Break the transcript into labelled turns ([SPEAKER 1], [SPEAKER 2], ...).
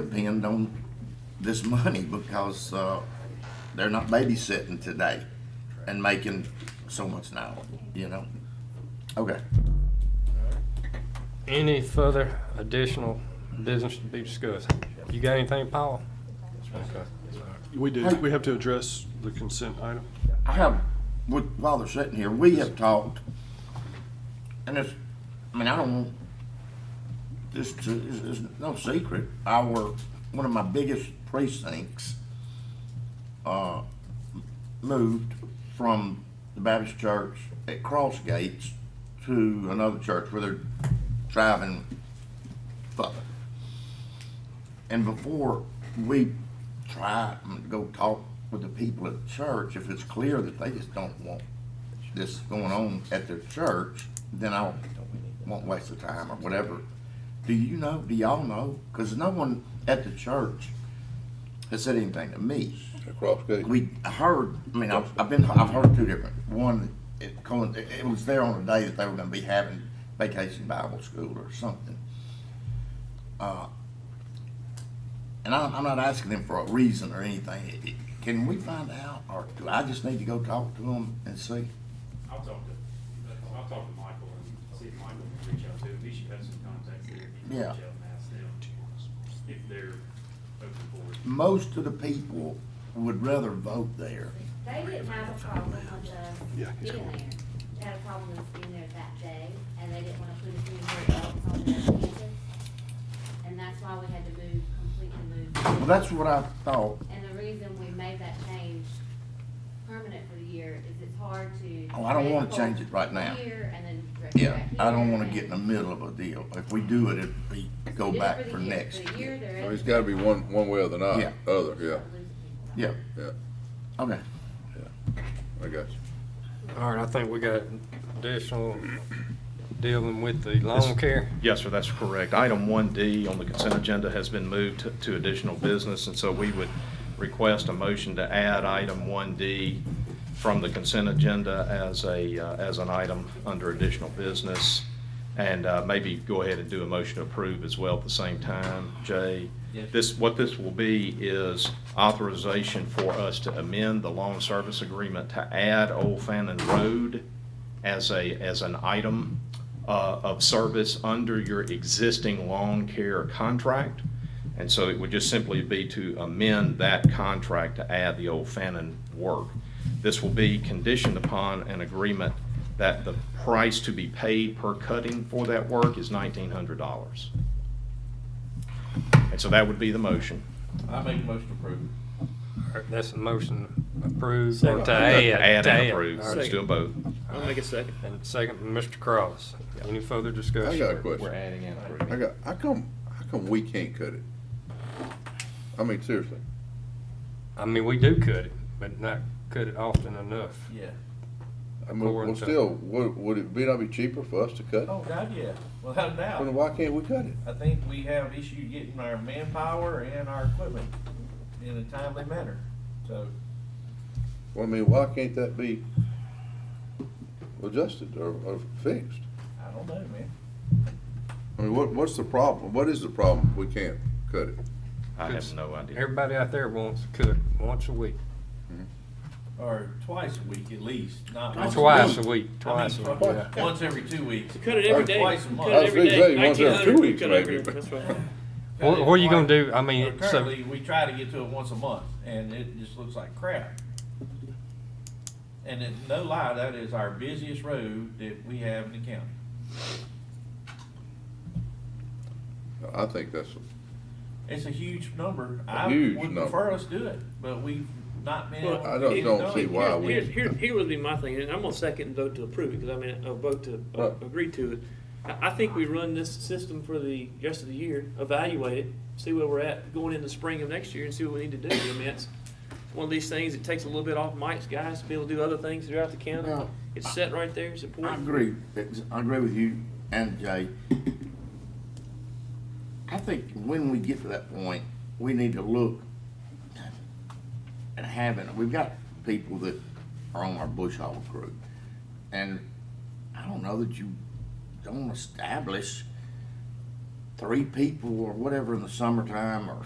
[SPEAKER 1] depend on this money because, uh, they're not babysitting today and making so much now, you know? Okay.
[SPEAKER 2] Any further additional business to be discussed? You got anything, Paul? Okay.
[SPEAKER 3] We do, we have to address the consent item.
[SPEAKER 1] I have, with- while they're sitting here, we have talked, and it's, I mean, I don't want this to, it's, it's no secret, our, one of my biggest precincts, uh, moved from the Baptist church at Cross Gates to another church where they're driving further. And before we try and go talk with the people at church, if it's clear that they just don't want this going on at their church, then I won't waste the time or whatever. Do you know, do y'all know? Because no one at the church has said anything to me.
[SPEAKER 4] Across gate.
[SPEAKER 1] We heard, I mean, I've, I've been, I've heard two different. One, it, coinc- it was there on the day that they were gonna be having vacation Bible school or something. Uh, And I'm, I'm not asking them for a reason or anything. It- it- Can we find out, or do I just need to go talk to them and see?
[SPEAKER 5] I'll talk to, I'll talk to Michael and see if Michael can reach out to him. He should have some contacts there. He can reach
[SPEAKER 1] Yeah.
[SPEAKER 5] out and ask them if they're open for it.
[SPEAKER 1] Most of the people would rather vote there.
[SPEAKER 6] They didn't have a problem with
[SPEAKER 3] Yeah,
[SPEAKER 6] us
[SPEAKER 3] he's
[SPEAKER 6] being
[SPEAKER 3] cool.
[SPEAKER 6] there. They had a problem with us being there that day, and they didn't want to put us anywhere else on their campus. And that's why we had to move, completely
[SPEAKER 1] Well,
[SPEAKER 6] move.
[SPEAKER 1] that's what I thought.
[SPEAKER 6] And the reason we made that change permanent for the year is it's hard to.
[SPEAKER 1] Oh, I don't wanna
[SPEAKER 6] record
[SPEAKER 1] change it right now.
[SPEAKER 6] Here and then. record
[SPEAKER 1] Yeah,
[SPEAKER 6] back
[SPEAKER 1] I don't
[SPEAKER 6] here
[SPEAKER 1] wanna
[SPEAKER 6] and-
[SPEAKER 1] get in the middle of a deal. If we do it, it'd be,
[SPEAKER 6] We
[SPEAKER 1] go
[SPEAKER 6] did it
[SPEAKER 1] back
[SPEAKER 6] the
[SPEAKER 1] for
[SPEAKER 6] year.
[SPEAKER 1] next
[SPEAKER 6] For the year,
[SPEAKER 1] year.
[SPEAKER 6] there
[SPEAKER 4] So
[SPEAKER 6] is-
[SPEAKER 4] it's gotta be one, one way or the
[SPEAKER 1] Yeah.
[SPEAKER 4] not, other, yeah,
[SPEAKER 1] Yeah,
[SPEAKER 4] yeah,
[SPEAKER 1] okay.
[SPEAKER 4] I got you.
[SPEAKER 2] All right, I think we got additional dealing with the lawn care.
[SPEAKER 7] Yes, sir, that's correct. Item 1D on the consent agenda has been moved to- to additional business, and so we would request a motion to add item 1D from the consent agenda as a, uh, as an item under additional business, and uh, maybe go ahead and do a motion to approve as well at the same time. Jay? This, what this will be is authorization for us to amend the loan service agreement to add Old Fannin Road as a, as an item uh, of service under your existing lawn care contract. And so it would just simply be to amend that contract to add the old Fannin work. This will be conditioned upon an agreement that the price to be paid per cutting for that work is nineteen hundred dollars. And so that would be the motion.
[SPEAKER 8] I make a motion to approve.
[SPEAKER 2] All right, That's a motion approved or to
[SPEAKER 7] To
[SPEAKER 2] add.
[SPEAKER 7] Add
[SPEAKER 2] to
[SPEAKER 7] and approve,
[SPEAKER 2] All right,
[SPEAKER 7] let's do them both.
[SPEAKER 8] I'll make a second.
[SPEAKER 2] And second, Mr. Cross. Any further
[SPEAKER 4] I
[SPEAKER 2] discussion?
[SPEAKER 4] got a
[SPEAKER 8] We're
[SPEAKER 4] question.
[SPEAKER 8] adding and approving.
[SPEAKER 4] I got, how come, how come we can't cut it? I mean, seriously,
[SPEAKER 2] I mean, we do cut it, but not cut it often enough.
[SPEAKER 8] Yeah.
[SPEAKER 4] I mean, well,
[SPEAKER 2] According to-
[SPEAKER 4] still, would, would it be not be cheaper for us to cut? it?
[SPEAKER 8] Oh, God, yeah, without a
[SPEAKER 4] Then
[SPEAKER 8] doubt.
[SPEAKER 4] why can't we cut it?
[SPEAKER 8] I think we have issue getting our manpower and our equipment in a timely manner, so.
[SPEAKER 4] Well, I mean, why can't that be adjusted or, or fixed?
[SPEAKER 8] I don't know, man.
[SPEAKER 4] I mean, what, what's the problem? What is the problem? We can't cut it.
[SPEAKER 7] I have no idea.
[SPEAKER 2] Everybody out there wants to cut once a week,
[SPEAKER 8] Or twice a week at least, not. once
[SPEAKER 2] twice a
[SPEAKER 8] month.
[SPEAKER 2] week,
[SPEAKER 8] I mean,
[SPEAKER 2] twice a week. yeah.
[SPEAKER 8] Once every two weeks.
[SPEAKER 9] Cut it every
[SPEAKER 8] Or
[SPEAKER 9] day.
[SPEAKER 8] Twice a month.
[SPEAKER 9] Cut it every
[SPEAKER 4] I was gonna
[SPEAKER 9] day.
[SPEAKER 4] say, once every two
[SPEAKER 9] 1900,
[SPEAKER 4] weeks,
[SPEAKER 9] cut every-
[SPEAKER 4] maybe, but-
[SPEAKER 9] that's right.
[SPEAKER 2] What, what are you gonna do? I mean,
[SPEAKER 8] But
[SPEAKER 2] so,
[SPEAKER 8] Currently, we try to get to it once a month, and it just looks like crap. And it, no lie, that is our busiest road that we have in the county.
[SPEAKER 4] I think that's,
[SPEAKER 8] It's a huge number. I
[SPEAKER 4] Huge
[SPEAKER 8] would
[SPEAKER 4] number.
[SPEAKER 8] prefer us do it, but we've not been.
[SPEAKER 9] Well,
[SPEAKER 8] able to
[SPEAKER 4] I
[SPEAKER 8] get
[SPEAKER 4] don't,
[SPEAKER 8] it
[SPEAKER 4] don't
[SPEAKER 8] done.
[SPEAKER 4] see why we.
[SPEAKER 9] Here, here, here would be my thing, and I'm gonna second vote to approve it, because I mean, a vote to uh,
[SPEAKER 4] Right.
[SPEAKER 9] agree to it. I, I think we run this system for the rest of the year, evaluate it, see where we're at going into spring of next year and see what we need to do. I mean, it's one of these things, it takes a little bit off Mike's guys to be able to do other things throughout the county.
[SPEAKER 1] Now,
[SPEAKER 9] It's set right there, it's
[SPEAKER 1] I
[SPEAKER 9] important.
[SPEAKER 1] agree, It's- I agree with you and Jay. I think when we get to that point, we need to look at having, we've got people that are on our bush hog group. And I don't know that you don't establish three people or whatever in the summertime or